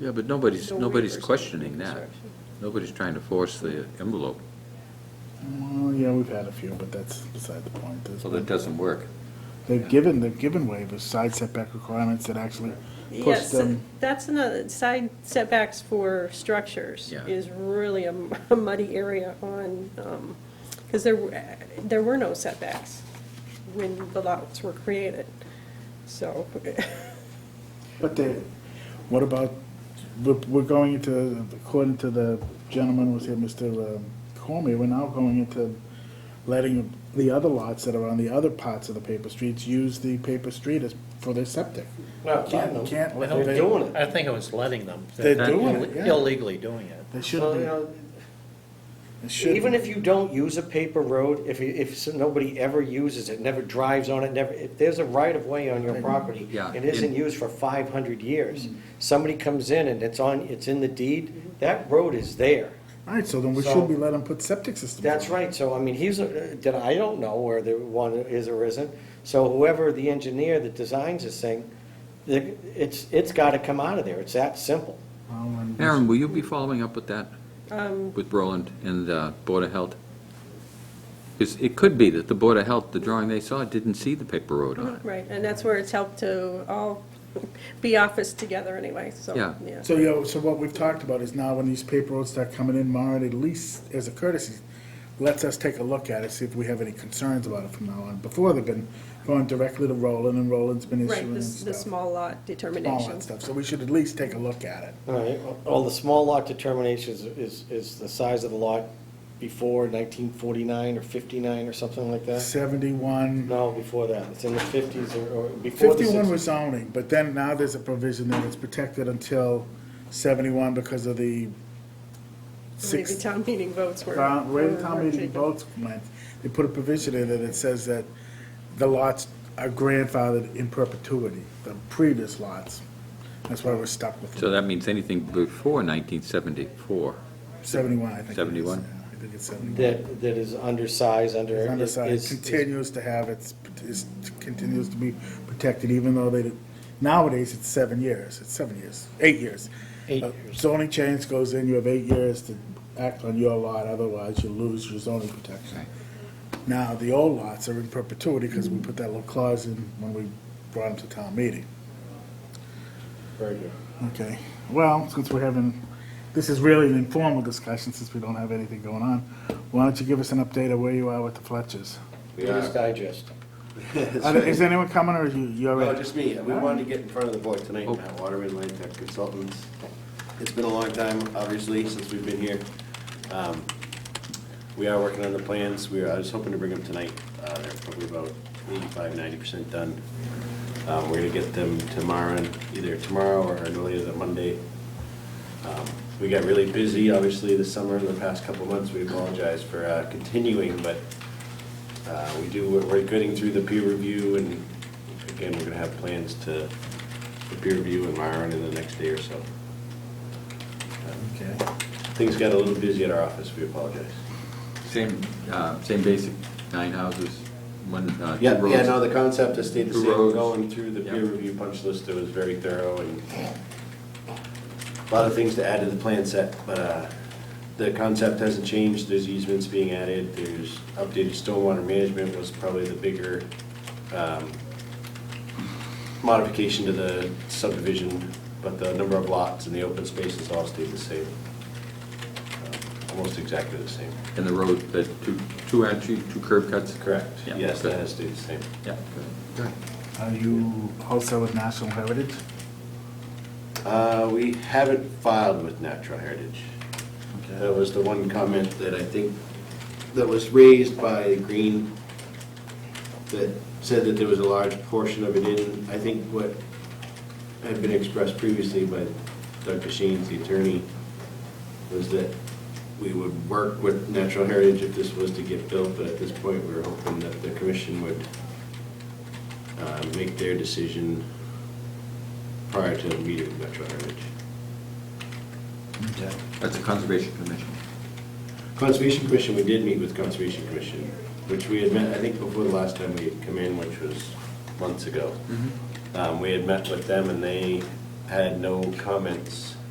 Yeah, but nobody's, The nobody's waivers. questioning that. Nobody's trying to force the envelope. Well, yeah, we've had a few, but that's beside the point. There's So been- that doesn't work. They've given, they've given waivers, side setback requirements that actually push Yes, them. that's another, side setbacks for structures Yeah. is really a m- a muddy area on, because there, were- there were no setbacks when the lots were created, so. But they, what about, we're, we're going into, according to the gentleman who was here, Mr. um, Cormier, we're now going into letting the other lots that are on the other parts of the paper streets use the paper street as, for their septic. Well, I Can't- don't know. can't I let don't them- think- doing I think it was letting them. They're They're doing it, yeah. Illegally doing it. They Well, you should know, be, it should Even be. if you don't use a paper road, if, you- if so- nobody ever uses it, never drives on it, never, if there's a right-of-way on your property Yeah. and isn't used for five hundred years, Mm-hmm. somebody comes in and it's on, it's in the deed, that road is there. All right, so then we So- should be letting them put septic systems. That's in. right, so I mean, he's, a- did, I don't know where the one is or isn't, so whoever the engineer that designs this thing, the- it's, it's gotta come out of there, it's that simple. Well, and we Aaron, will you be following up with that, um, with Roland and the Board of Health? Because it could be that the Board of Health, the drawing they saw, didn't see the paper road on it. Right, and that's where it's helped to all be office together anyway, so. Yeah. So, you know, so what we've talked about is now when these paper roads start coming in, Mara, at least as a courtesy, lets us take a look at it, see if we have any concerns about it from now on. Before, they've been going directly to Roland, and Roland's been Right, issuing the, and s- the stuff. small lot All determination. that stuff, so we should at least take a look at it. All right, well, the small lot determination is, is, is the size of the lot before nineteen forty-nine or fifty-nine or something like that? Seventy-one, No, before that, it's in the fifties or, or before the fifty-one was sixties. zoning, but then now there's a provision that it's protected until seventy-one because of the Maybe six, town meeting votes were. Town- Way the were- town were meeting taken. votes went, they put a provision in it that says that the lots are grandfathered in perpetuity, the previous lots. That's why we're stuck with So it. that means anything before 1974. seventy-one, I think. it is. 71? Yeah, I think it's seventy-one. That, that is undersized, under. It's is- Undersized, is- continues to have its, is, continues to be protected, even though they, did- nowadays, it's seven years, it's seven years, eight years. Eight Uh, years. Zoning change goes in, you have eight years to act on your lot, otherwise you lose your zoning protection. Now, the old lots are in perpetuity because we put that little clause in when we brought them to town meeting. Very good. Okay, well, since we're having, this is really an informal discussion since we don't have anything going on. Why don't you give us an update of where you are with the Fletchers? Reader's Digest. Are there- Is anyone coming or you, you No, already? just me. We wanted to get in front of the board tonight, Matt Waterman, Land Tech Consultants. It's been a long time, obviously, since we've been here. Um, We are working on the plans. We are, I was hoping to bring them tonight. Uh, They're probably about 85, 90% done. Um, We're going to get them tomorrow, either tomorrow or no later than Monday. Um, We got really busy, obviously, this summer, in the past couple of months. We apologize for uh, continuing, but uh, We do, we're- we're getting through the peer review, and again, we're going to have plans to, the peer review and Myron in the next day or so. Okay. Things got a little busy at our office, we apologize. Same, uh, same basic, nine houses, one, uh, two Yeah, roads. yeah, no, the concept has stayed the Two same, roads. going through the peer Yeah. review punch list, it was very thorough, and a lot of things to add to the plan set, but uh, the concept hasn't changed, there's easements being added, there's updated stormwater management was probably the bigger um, modification to the subdivision, but the number of lots and the open spaces all stayed the same, Um, almost exactly the same. And the road, the two, two entry, two curb cuts? Correct, Yeah, yes, good. that has stayed the same. Yeah. Are Uh, you also with National Heritage? Uh, We haven't filed with Natural Heritage. Okay. That was the one comment that I think, that was raised by Green, that said that there was a large portion of it in, I think what had been expressed previously by Doug Cashin, the attorney, was that we would work with Natural Heritage if this was to get built, but at this point, we were hoping that the commission would uh, make their decision prior to the meeting with Natural Heritage. Okay. That's a conservation commission. Conservation Commission, we did meet with Conservation Commission, which we had met, I think before the last time we had come in, which was months ago. Um, We had met with them and they had no comments